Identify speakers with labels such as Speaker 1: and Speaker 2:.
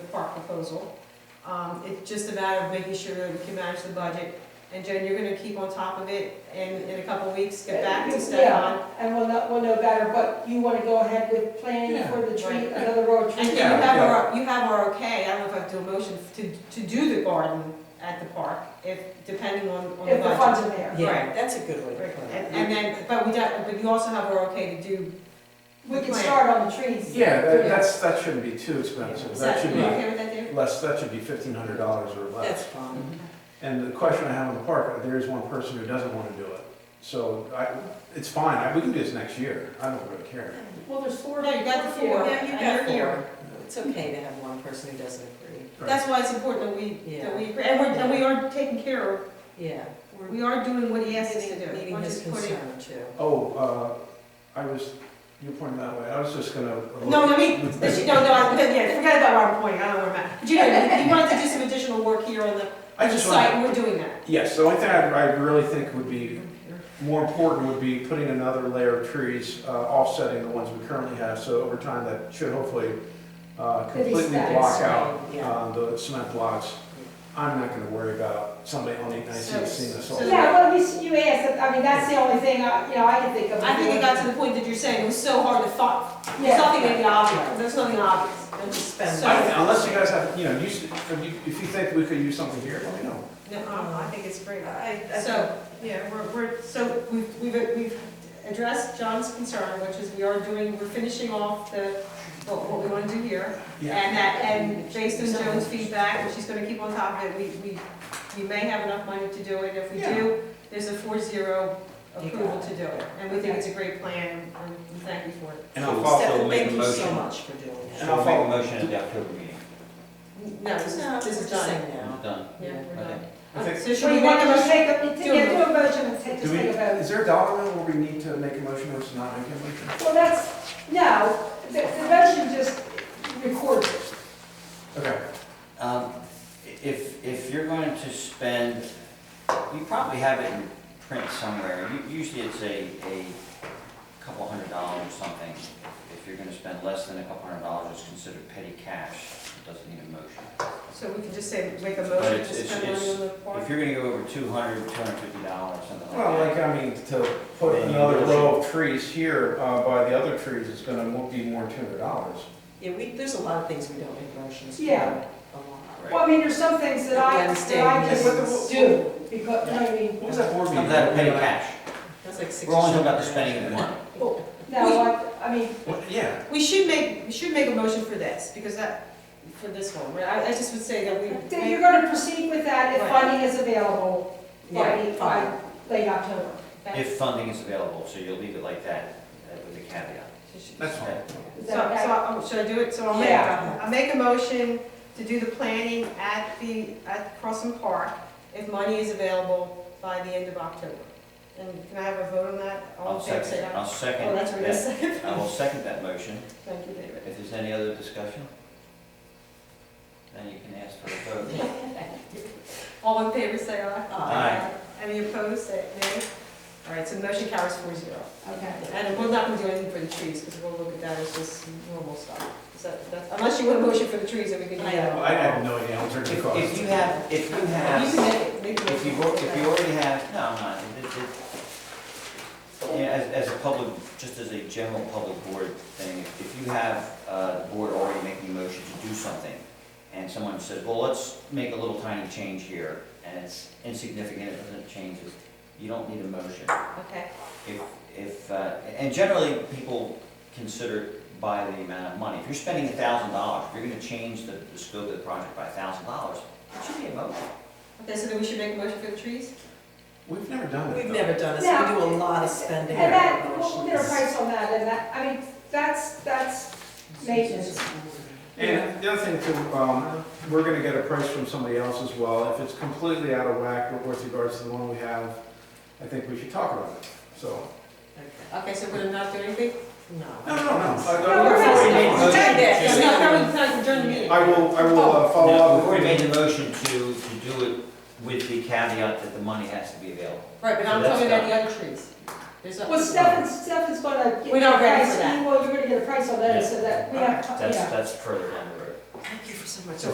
Speaker 1: proposal. Um, it's just a matter of making sure that we can manage the budget. And Jen, you're gonna keep on top of it and in a couple of weeks,
Speaker 2: Uh,
Speaker 1: get back to Stefan.
Speaker 3: Yeah, and we'll know, we'll know better, but you wanna go ahead with planning
Speaker 4: Yeah.
Speaker 3: for the tree,
Speaker 1: Right.
Speaker 3: another road
Speaker 1: And
Speaker 3: tree?
Speaker 1: you
Speaker 4: Yeah,
Speaker 1: have our, you have our okay, I don't know if I have to do a motion to, to do the garden at the park, if, depending on, on the
Speaker 3: If the
Speaker 1: budget.
Speaker 3: funds are there.
Speaker 2: Yeah, that's a good way to
Speaker 1: Right,
Speaker 2: put
Speaker 1: And,
Speaker 2: it.
Speaker 1: and then, but we don't, but you also have our okay to do.
Speaker 3: We can
Speaker 1: Plan.
Speaker 3: start on the trees.
Speaker 4: Yeah, that- that's, that shouldn't be too expensive,
Speaker 1: Is
Speaker 4: that
Speaker 1: that,
Speaker 4: should
Speaker 1: you
Speaker 4: be
Speaker 1: okay with that, David?
Speaker 4: less, that should be fifteen hundred dollars or
Speaker 2: That's
Speaker 4: less.
Speaker 2: fine.
Speaker 4: And the question I have on the park, there is one person who doesn't wanna do it, so I, it's fine, I- we can do this next year, I don't really care.
Speaker 3: Well, there's four.
Speaker 1: No, you got the
Speaker 3: here.
Speaker 1: four,
Speaker 2: Yeah, you got
Speaker 1: and you're here.
Speaker 2: It's okay to have one person who doesn't agree.
Speaker 4: Right.
Speaker 1: That's why it's important that we, that
Speaker 2: Yeah.
Speaker 1: we, agree. and we're, and we are taking care of,
Speaker 2: Yeah. we're
Speaker 1: we are doing what he asked us to do.
Speaker 2: Meeting
Speaker 1: We're
Speaker 2: his
Speaker 1: just putting-
Speaker 2: concern too.
Speaker 4: Oh, uh, I was, you pointed that way, I was just gonna.
Speaker 1: No, no, me, this, no, no, I, yeah, forget about our point, I don't worry about it. But you know, you you wanted to do some additional work here on the,
Speaker 4: I
Speaker 1: on the
Speaker 4: just want,
Speaker 1: site, and we're doing that.
Speaker 4: yes, the only thing I, I really think would be more important would be putting another layer of trees, uh, offsetting the ones we currently have, so over time, that should hopefully, uh,
Speaker 3: Could be
Speaker 4: completely
Speaker 3: static.
Speaker 4: block out,
Speaker 2: Yeah.
Speaker 4: um, the cement blocks. I'm not gonna worry about somebody on eight nineteen seeing us all.
Speaker 1: So-
Speaker 3: Yeah, well, you, s- you asked, I mean, that's the only thing, I you know, I can think of.
Speaker 1: I think it got to the point that you're saying it was so hard to thought, there's
Speaker 3: Yeah.
Speaker 1: nothing in the obvious, there's nothing obvious.
Speaker 2: Let's just spend.
Speaker 1: So-
Speaker 4: I- Unless you guys have, you know, use, if you, if you think we could use something here, let me know.
Speaker 1: No, I I think it's great.
Speaker 2: I- I-
Speaker 1: So, yeah, we're, we're, so we've, we've, we've addressed John's concern, which is we are doing, we're finishing off the, what, what we wanna do here. And that, and based on Joan's feedback, and she's gonna keep on top of it, we, we, we may have enough money to do it, if we
Speaker 4: Yeah.
Speaker 1: do, there's a four zero
Speaker 2: You got
Speaker 1: approval to do it, and we think it's a great plan, and we thank you for
Speaker 4: And I'll follow,
Speaker 5: also
Speaker 2: Stefan,
Speaker 5: make
Speaker 2: thank
Speaker 5: a
Speaker 2: you so
Speaker 5: motion.
Speaker 2: much for doing
Speaker 4: And
Speaker 2: that.
Speaker 5: And
Speaker 4: I'll
Speaker 5: I'll make
Speaker 4: follow-
Speaker 5: a motion at the October meeting.
Speaker 1: it. No, this
Speaker 2: No,
Speaker 1: is, this is
Speaker 2: we're just
Speaker 1: done.
Speaker 2: saying no.
Speaker 5: Done.
Speaker 1: Yeah, we're
Speaker 5: Okay.
Speaker 1: done.
Speaker 4: I think-
Speaker 1: So
Speaker 3: So
Speaker 1: should we
Speaker 3: you
Speaker 1: make
Speaker 3: want
Speaker 1: a
Speaker 3: to just
Speaker 1: motion?
Speaker 3: take a, yeah,
Speaker 1: Do it.
Speaker 3: do a motion and take,
Speaker 4: do
Speaker 3: just
Speaker 4: we,
Speaker 3: take a vote.
Speaker 4: is there a dollar amount where we need to make a motion or it's not making a motion?
Speaker 3: Well, that's, no, the, the motion just records it.
Speaker 4: Okay,
Speaker 5: Um, If, if you're going to spend, you probably have it in print somewhere. U- Usually it's a, a couple hundred dollars or something. If you're gonna spend less than a couple hundred dollars, it's considered petty cash. It doesn't need a motion.
Speaker 1: So we can just say, make a
Speaker 5: But
Speaker 1: motion to
Speaker 5: it's- it's-
Speaker 1: spend money
Speaker 5: it's-
Speaker 1: on the
Speaker 5: If
Speaker 1: park?
Speaker 5: you're gonna go over two hundred, two hundred fifty dollars, something like that.
Speaker 4: well, like, I mean, to put another row of trees here, uh, by the other trees, it's gonna mo- be more than two hundred dollars.
Speaker 2: Yeah, we, there's a lot of things we don't make motions for.
Speaker 3: Yeah.
Speaker 2: A lot.
Speaker 3: Well, I mean, there's some things that I, that I
Speaker 2: Wednesday.
Speaker 3: just do, because, you know what I mean?
Speaker 4: What was that board meeting?
Speaker 5: Of that petty cash.
Speaker 2: That's like six.
Speaker 5: We're only talking about the spending of the money.
Speaker 3: No, I, I mean,
Speaker 4: Well, Yeah,
Speaker 1: We should make, we should make a motion for this, because that, for this one, right? I, I just would say that we.
Speaker 3: then you're gonna proceed with that if
Speaker 1: Right.
Speaker 3: funding is available by,
Speaker 2: Yeah,
Speaker 3: by
Speaker 2: fine.
Speaker 3: late October.
Speaker 5: If funding is available, so you'll leave it like that, uh, with a caveat.
Speaker 4: that's fine.
Speaker 3: Is
Speaker 1: So, so,
Speaker 3: that okay?
Speaker 1: I'll- should I do it? So I'll make,
Speaker 3: Yeah.
Speaker 1: I'll make a motion to do the planning at the, at Crossing Park, if money is available by the end of October. And can I have a vote on that? All
Speaker 5: I'll
Speaker 1: in favor, say
Speaker 5: second,
Speaker 1: aye.
Speaker 5: I'll
Speaker 1: Oh,
Speaker 5: second
Speaker 1: that's what I
Speaker 5: that,
Speaker 1: said.
Speaker 5: I will second that motion.
Speaker 1: Thank you, David.
Speaker 5: If there's any other discussion, then you can ask for a vote.
Speaker 1: All in favor, say aye.
Speaker 5: Aye.
Speaker 1: Any opposed, say nay. All right, so the motion carries four zero.
Speaker 3: Okay.
Speaker 1: And we're not gonna do anything for the trees, because we'll look at that as just normal stuff. Is that, that's, unless you want a motion for the trees, then we can do that.
Speaker 4: I have no idea, I'm turning
Speaker 5: If
Speaker 4: the
Speaker 5: if you have, if you
Speaker 1: You
Speaker 5: have,
Speaker 1: can make it, make a
Speaker 5: if you,
Speaker 1: motion.
Speaker 5: al- if you already have, no, no, it, it- it, yeah, as, as a public, just as a general public board thing, if if you have, uh, the board already making a motion to do something, and someone says, well, let's make a little tiny change here, and it's insignificant, it doesn't change, it, you don't need a motion.
Speaker 1: Okay,
Speaker 5: If, if, uh, and generally, people consider it by the amount of money. If you're spending a thousand dollars, if you're gonna change the, the scope of the project by a thousand dollars, it should be a motion.
Speaker 1: okay, so then we should make a motion for the trees?
Speaker 4: We've never done it.
Speaker 2: We've
Speaker 4: though.
Speaker 2: never done this, we do a lot of spending.
Speaker 3: And that,
Speaker 2: on
Speaker 3: we'll, we'll get a
Speaker 2: motions.
Speaker 3: price on that, and that, I mean, that's, that's, maintenance.
Speaker 4: And the other thing too, um, we're gonna get a price from somebody else as well. If it's completely out of whack with regards to the one we have, I think we should talk about it, so.
Speaker 2: Okay.
Speaker 1: Okay, so we're not doing anything?
Speaker 4: No,
Speaker 2: No.
Speaker 4: no, no, I-
Speaker 3: No, we're not
Speaker 4: I-
Speaker 3: saying-
Speaker 4: I-
Speaker 1: Yeah, no, no, we- no, during the meeting.
Speaker 4: I will, I will uh, follow
Speaker 5: Now,
Speaker 4: up.
Speaker 5: Before
Speaker 4: with
Speaker 5: you
Speaker 4: you.
Speaker 5: made the motion to, to do it with the caveat that the money has to be available.
Speaker 1: Right, but I'm
Speaker 5: So that's
Speaker 1: talking about
Speaker 5: done.
Speaker 1: the other trees. There's a-
Speaker 3: well, Stefan's, Stefan's gonna get.
Speaker 1: We're not
Speaker 3: a
Speaker 1: ready for
Speaker 3: price.
Speaker 1: that.
Speaker 3: Well, you're gonna get a price on that, so that we have, yeah.
Speaker 5: That's, that's further down the road.
Speaker 2: Thank you for so much.